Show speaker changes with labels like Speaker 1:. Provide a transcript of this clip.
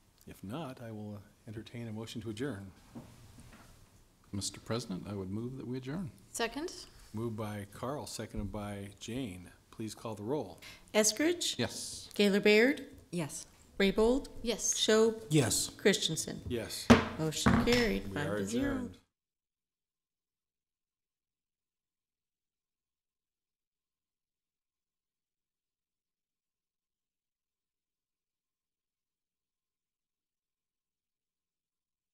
Speaker 1: If not, I will entertain a motion to adjourn. Mr. President, I would move that we adjourn.
Speaker 2: Second?
Speaker 1: Moved by Carl, seconded by Jane. Please call the roll.
Speaker 3: Eskridge,
Speaker 1: Yes.
Speaker 3: Gaylor Baird,
Speaker 4: Yes.
Speaker 3: Raybold,
Speaker 2: Yes.
Speaker 3: Schob,
Speaker 5: Yes.
Speaker 3: Christensen.
Speaker 1: Yes.
Speaker 3: Motion carried,
Speaker 1: We
Speaker 3: five
Speaker 1: are
Speaker 3: to zero.
Speaker 1: adjourned.